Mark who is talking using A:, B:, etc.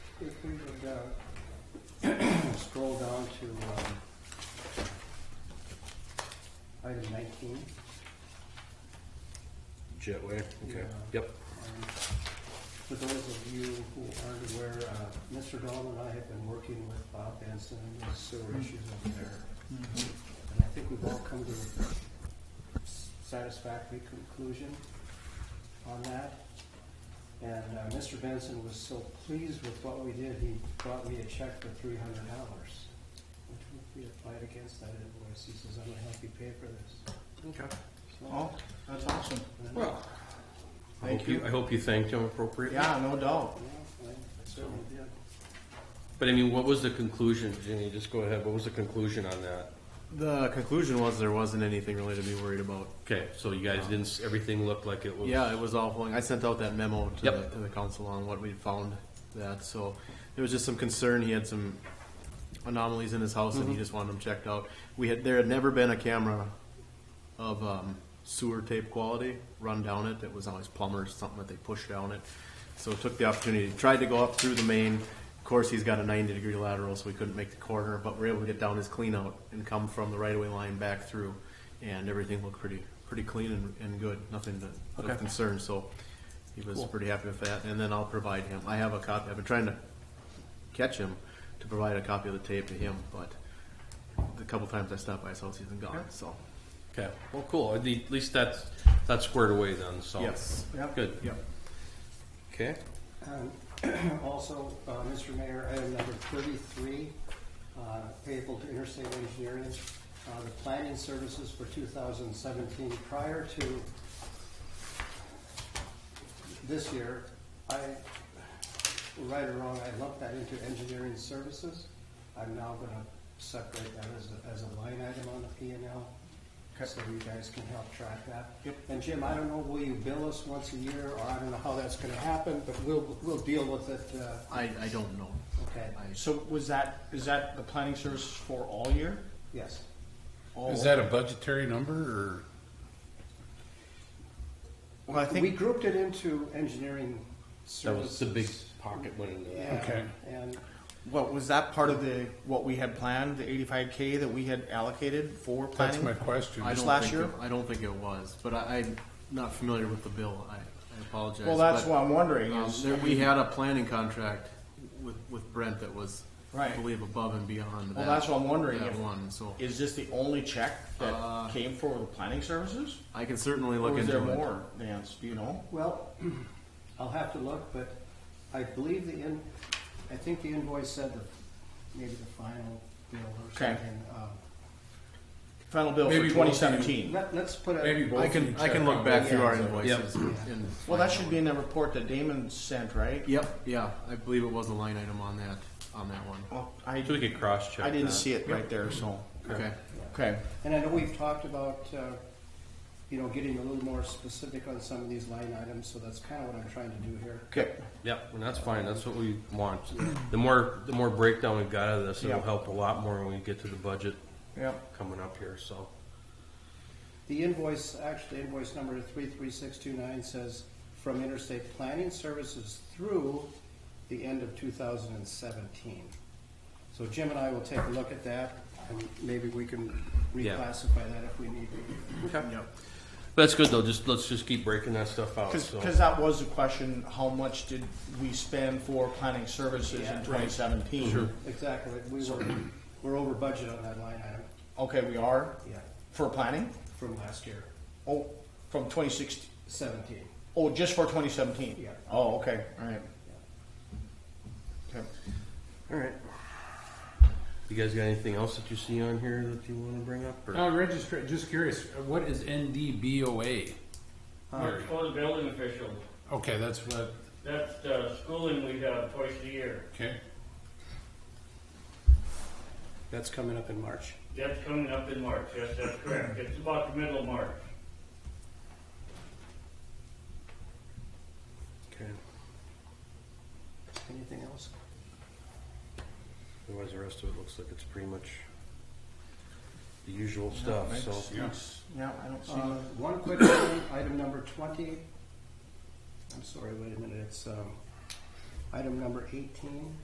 A: If we would, uh, scroll down to, um, item nineteen.
B: Jetway, okay,
A: Yeah.
B: yep.
A: um, For those of you who aren't aware, uh, Mr. Dahl and I have been working with Bob Benson on the sewer issues over there.
B: Mm-hmm.
A: And I think we've all come to a satisfactory conclusion on that. And uh, Mr. Benson was so pleased with what we did, he brought me a check for three hundred dollars. Which we applied against that invoice, he says, I'm gonna help you pay for this.
B: Okay.
A: So-
C: Oh, that's awesome.
A: And-
B: Well, I
C: Thank
B: hope you,
C: you.
B: I hope you thanked him appropriately.
C: Yeah, no doubt.
A: Yeah, I certainly did.
B: But I mean, what was the conclusion, Jenny, just go ahead, what was the conclusion on that?
D: The conclusion was there wasn't anything really to be worried about.
B: Okay, so you guys didn't, s- everything looked like it was?
D: Yeah, it was all flowing. I sent out that memo to,
B: Yep.
D: the, to the council on what we found that. So there was just some concern. He had some anomalies in his house, and he just wanted them checked out. We had there had never been a camera of um, sewer tape quality run down it. It was always plumbers something that they pushed down it. So took the opportunity, tried to go up through the main. Of course, he's got a 90 degree lateral, so we couldn't make the corner, but we're able to get down his clean out and come from the right of way line back through, and everything looked pretty pretty clean and, and good. Nothing to,
B: Okay.
D: of concern. So he was
B: Cool.
D: pretty happy with that. And then I'll provide him. I have a copy. I've been trying to catch him to provide a copy of the tape to him, but the couple times I stopped by his house, he's been gone. So
B: Okay, well, cool, at the- at least that's, that's squared away then, so.
D: yes,
C: Yep.
B: Good,
D: yep.
B: okay,
A: Um, Also, uh, Mr. Mayor, item number thirty-three, uh, payable to Interstate Engineering, uh, the planning services for two thousand seventeen. Prior to this year, I, right or wrong, I lumped that into engineering services. I'm now gonna separate that as a, as a line item on the P and L, so you guys can help track that.
C: Yep.
A: And Jim, I don't know, will you bill us once a year, or I don't know how that's gonna happen, but we'll, we'll deal with it, uh,
D: I, I don't know.
A: okay,
D: I,
C: So was that, is that the planning service for all year?
A: yes.
C: All-
E: Is that a budgetary number or?
C: Well, I
A: We
C: think,
A: grouped it into engineering
B: that was
A: services.
B: the big pocket went into that.
A: Yeah,
E: Okay.
A: and,
C: what, was that part of the, what we had planned, the eighty-five K that we had allocated for
E: That's
C: planning?
E: my question.
D: I
C: Just
D: don't
C: last
D: think
C: year?
D: It, I don't think it was, but I, I'm not familiar with the bill. I, I apologize.
C: Well, that's
D: but,
C: what I'm wondering
D: Um,
C: is,
D: there, we had a planning contract with, with Brent that was, I
C: Right.
D: believe, above and beyond that,
C: well, that's what I'm wondering.
D: that
C: if-
D: one. So
C: Is this the only check
D: Uh,
C: that came for the planning services?
D: I can certainly
C: Or
D: look
C: is
D: into
C: there
D: it.
C: more, Vance, do you know?
A: well, I'll have to look, but I believe the in, I think the invoice said the, maybe the final bill or
C: Okay.
A: something. Uh,
C: Final bill
E: Maybe
C: for
E: both
C: twenty
E: of you-
C: seventeen.
A: Let, let's put a.
E: Maybe both.
D: I
E: of you
D: can I
E: check
D: can look
E: on
D: back
E: both
D: through our
E: ends of it.
D: invoices.
A: Yeah.
D: And
C: Well, that should be in the report that Damon sent, right?
D: Yep. Yeah, I believe it was a line item on that on that one.
C: Well, I,
B: So we could cross-check
C: I didn't
B: that.
C: see it right there, so,
D: Okay.
C: okay.
A: And I know we've talked about, uh, you know, getting a little more specific on some of these line items, so that's kind of what I'm trying to do here.
C: Okay.
B: Yep, and that's fine, that's what we want. The more, the more breakdown we've got of this, it'll
C: Yeah.
B: help a lot more when we get to the budget
C: Yep.
B: coming up here, so.
A: The invoice, actually invoice number three three six two nine says from Interstate Planning Services through the end of two thousand and seventeen. So Jim and I will take a look at that, and maybe we can
B: Yeah.
A: reclassify that if we need to.
B: Okay. But that's good though, just, let's just keep breaking that stuff out, Oh, so.
C: Because that was the question, how much did we spend for planning services
A: Yeah.
C: in twenty seventeen?
A: Exactly, we were, we're over budget on that line item,
C: Okay, we are,
A: yeah,
C: for planning?
A: from last year,
C: Oh, from 2016.
A: seventeen.
C: Oh, just for twenty seventeen?
A: Yeah.
C: Oh, okay, all right. Okay.
B: All right. You guys got anything else that you see on here that you want to bring up? Or?
E: Uh, registra- just curious, what is NDBOA? Or-
F: Code Uh, building official,
E: Okay, that's what,
F: that's the schooling we have twice a year.
E: okay.
A: That's coming up in March.
F: That's coming up in March, yes, that's correct. It's about the middle of March.
B: Okay.
A: Anything else?
B: Otherwise, the rest of it looks like it's pretty much the usual stuff. so,
C: Yes. Yeah, I don't see.
A: Uh, One quick item, item number twenty. I'm sorry, wait a minute, it's, um, item number eighteen.